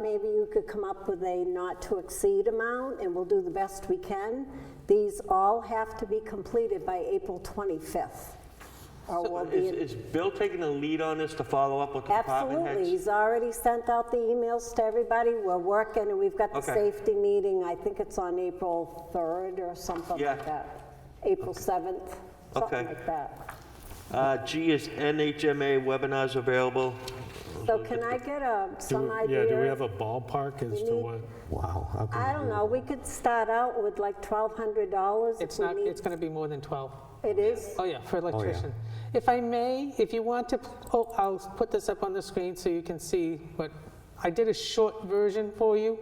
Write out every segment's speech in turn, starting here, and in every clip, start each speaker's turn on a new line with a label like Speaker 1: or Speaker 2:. Speaker 1: Maybe you could come up with a not-to-exceed amount, and we'll do the best we can. These all have to be completed by April 25th. or we'll
Speaker 2: So
Speaker 1: be
Speaker 2: Is
Speaker 1: in-
Speaker 2: is Bill taking the lead on this to follow up with the department heads?
Speaker 1: Absolutely, he's already sent out the emails to everybody, we're working, and we've got the
Speaker 2: Okay.
Speaker 1: safety meeting, I think it's on April 3rd or something
Speaker 2: Yeah.
Speaker 1: like that. April 7th, something
Speaker 2: Okay.
Speaker 1: like that.
Speaker 2: Uh, G is NHMA webinars available.
Speaker 1: So can I get a,
Speaker 3: Do
Speaker 1: some
Speaker 3: we-
Speaker 1: idea?
Speaker 3: Yeah, do we have a ballpark as to
Speaker 1: need-
Speaker 3: what?
Speaker 4: Wow. how can
Speaker 1: I
Speaker 4: you
Speaker 1: don't
Speaker 4: do
Speaker 1: know, we could start out with like $1,200 if
Speaker 5: It's
Speaker 1: we
Speaker 5: not,
Speaker 1: need-
Speaker 5: it's going to be more than 12.
Speaker 1: It is?
Speaker 5: Oh, yeah, for electrician. If I may, if you want to, oh, I'll put this up on the screen so you can see what, I did a short version for you.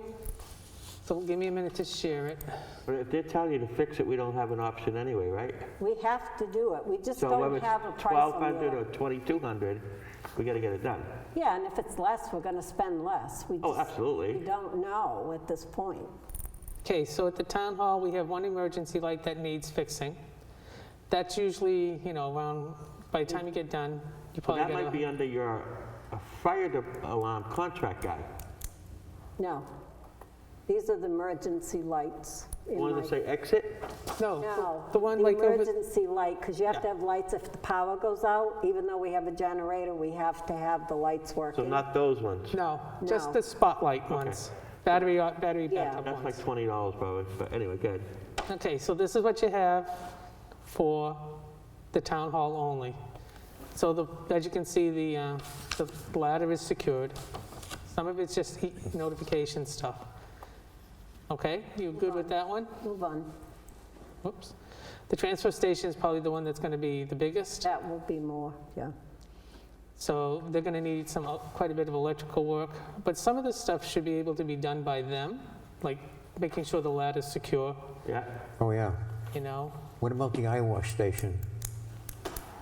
Speaker 5: So give me a minute to share it.
Speaker 2: But if they're telling you to fix it, we don't have an option anyway, right?
Speaker 1: We have to do it, we just
Speaker 2: So whether
Speaker 1: don't
Speaker 2: it's
Speaker 1: have a price on
Speaker 2: 1,200 or
Speaker 1: it.
Speaker 2: 2,200, we got to get it done.
Speaker 1: Yeah, and if it's less, we're going to spend less. We
Speaker 2: Oh,
Speaker 1: just-
Speaker 2: absolutely.
Speaker 1: We don't know at this point.
Speaker 5: Okay, so at the town hall, we have one emergency light that needs fixing. That's usually, you know, around, by the time you get done,
Speaker 2: But
Speaker 5: you probably
Speaker 2: that
Speaker 5: got
Speaker 2: might be under your uh, fire de- alarm contract guy.
Speaker 1: No. These are the emergency lights. in
Speaker 2: Wanted
Speaker 1: my-
Speaker 2: to say exit?
Speaker 5: No,
Speaker 1: No.
Speaker 5: the one like over,
Speaker 1: emergency light, because you have to have lights if the power goes out. Even though we have a generator, we have to have the lights
Speaker 2: So
Speaker 1: working.
Speaker 2: not those ones.
Speaker 5: no,
Speaker 1: No.
Speaker 5: just the spotlight ones, battery, uh, battery
Speaker 1: Yeah.
Speaker 5: backup
Speaker 2: That's
Speaker 5: ones.
Speaker 2: like $20 probably, but anyway, good.
Speaker 5: Okay, so this is what you have for the town hall only. So the, as you can see, the, uh, the ladder is secured. Some of it's just e- notification stuff. Okay, you good with that one?
Speaker 1: Move on.
Speaker 5: Whoops. The transfer station is probably the one that's gonna be the biggest.
Speaker 1: That will be more, yeah.
Speaker 5: So they're gonna need some, el- quite a bit of electrical work. But some of this stuff should be able to be done by them, like making sure the ladder's secure,
Speaker 2: Yeah.
Speaker 4: it? Oh, yeah.
Speaker 5: you know?
Speaker 4: What about the eye wash station?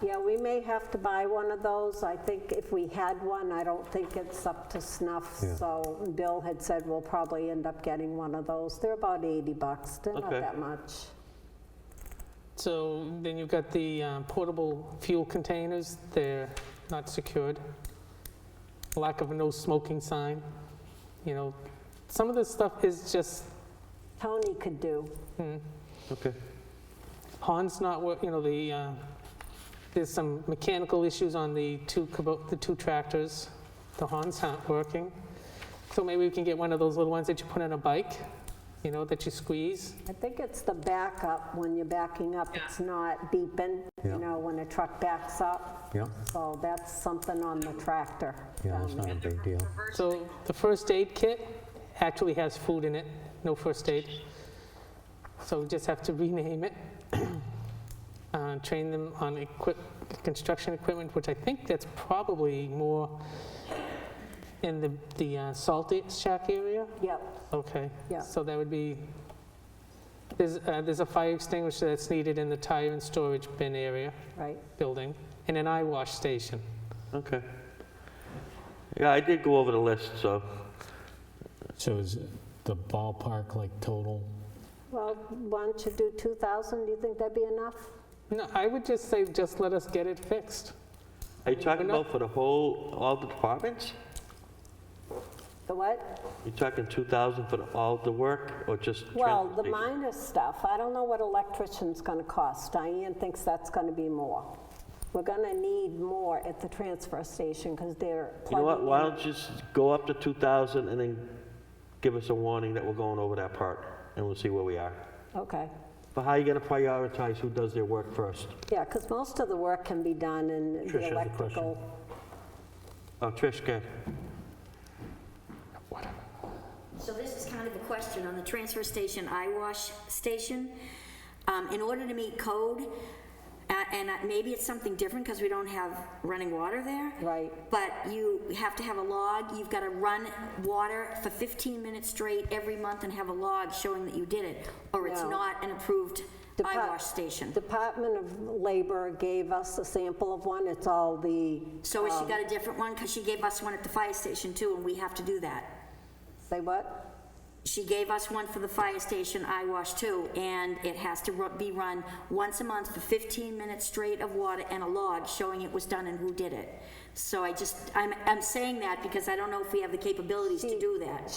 Speaker 1: Yeah, we may have to buy one of those. I think if we had one, I don't think it's up to snuff.
Speaker 4: Yeah.
Speaker 1: So Bill had said we'll probably end up getting one of those. They're about 80 bucks, they're not
Speaker 2: Okay.
Speaker 1: that much.
Speaker 5: So then you've got the uh, portable fuel containers, they're not secured. Lack of a no smoking sign, you know, some of this stuff is just,
Speaker 1: Tony could do.
Speaker 5: hmm,
Speaker 2: Okay.
Speaker 5: Hans not, wor- you know, the, uh, there's some mechanical issues on the two, kubo- the two tractors, the Hans aren't working. So maybe we can get one of those little ones that you put on a bike, you know, that you squeeze.
Speaker 1: I think it's the backup, when you're backing up, it's not beeping,
Speaker 4: Yeah.
Speaker 1: you know, when a truck backs up.
Speaker 4: Yeah,
Speaker 1: So that's something on the tractor. Um,
Speaker 4: yeah, that's not a big deal.
Speaker 5: So the first aid kit actually has food in it, no first aid. So we just have to rename it. Uh, Train them on equip, construction equipment, which I think that's probably more in the, the uh, salt shack area.
Speaker 1: Yep,
Speaker 5: Okay.
Speaker 1: Yeah.
Speaker 5: So that would be, there's, uh, there's a fire extinguisher that's needed in the tire and storage bin area,
Speaker 1: right.
Speaker 5: building, and an eye wash station.
Speaker 2: Okay. Yeah, I did go over the list, so
Speaker 3: So is the ballpark like total?
Speaker 1: Well, why don't you do 2,000? Do you think that'd be enough?
Speaker 5: No, I would just say, just let us get it fixed.
Speaker 2: Are you talking
Speaker 5: We're not-
Speaker 2: about for the whole, all the departments?
Speaker 1: The what?
Speaker 2: You talking 2,000 for the- all the work or just?
Speaker 1: Well, the
Speaker 2: transportation?
Speaker 1: minor stuff, I don't know what electrician's going to cost. Diane thinks that's going to be more. We're going to need more at the transfer station because they're
Speaker 2: You know what,
Speaker 1: plugging
Speaker 2: why
Speaker 1: in.
Speaker 2: don't you just go up to 2,000 and then give us a warning that we're going over that part and we'll see where we are.
Speaker 1: Okay.
Speaker 2: But how are you going to prioritize who does their work first?
Speaker 1: Yeah, because most of the work can be done in
Speaker 2: Trish has
Speaker 1: the
Speaker 2: a
Speaker 1: electrical.
Speaker 2: Oh, Trish, go.
Speaker 6: So this is kind of a question on the transfer station, eyewash station. Um, In order to meet code, uh, and uh, maybe it's something different because we don't have running water there.
Speaker 1: Right.
Speaker 6: But you have to have a log, you've got to run water for 15 minutes straight every month and have a log showing that you did it, or it's
Speaker 1: No.
Speaker 6: not an approved
Speaker 1: Depart-
Speaker 6: eyewash station.
Speaker 1: Department of Labor gave us a sample of one. It's all the,
Speaker 6: So has she got a different one? Because she gave us one at the fire station too, and we have to do that.
Speaker 1: say what?
Speaker 6: she gave us one for the fire station, I wash too, and it has to ru- be run once a month for 15 minutes straight of water and a log showing it was done and who did it. So I just, I'm, I'm saying that because I don't know if we have the capabilities to do that.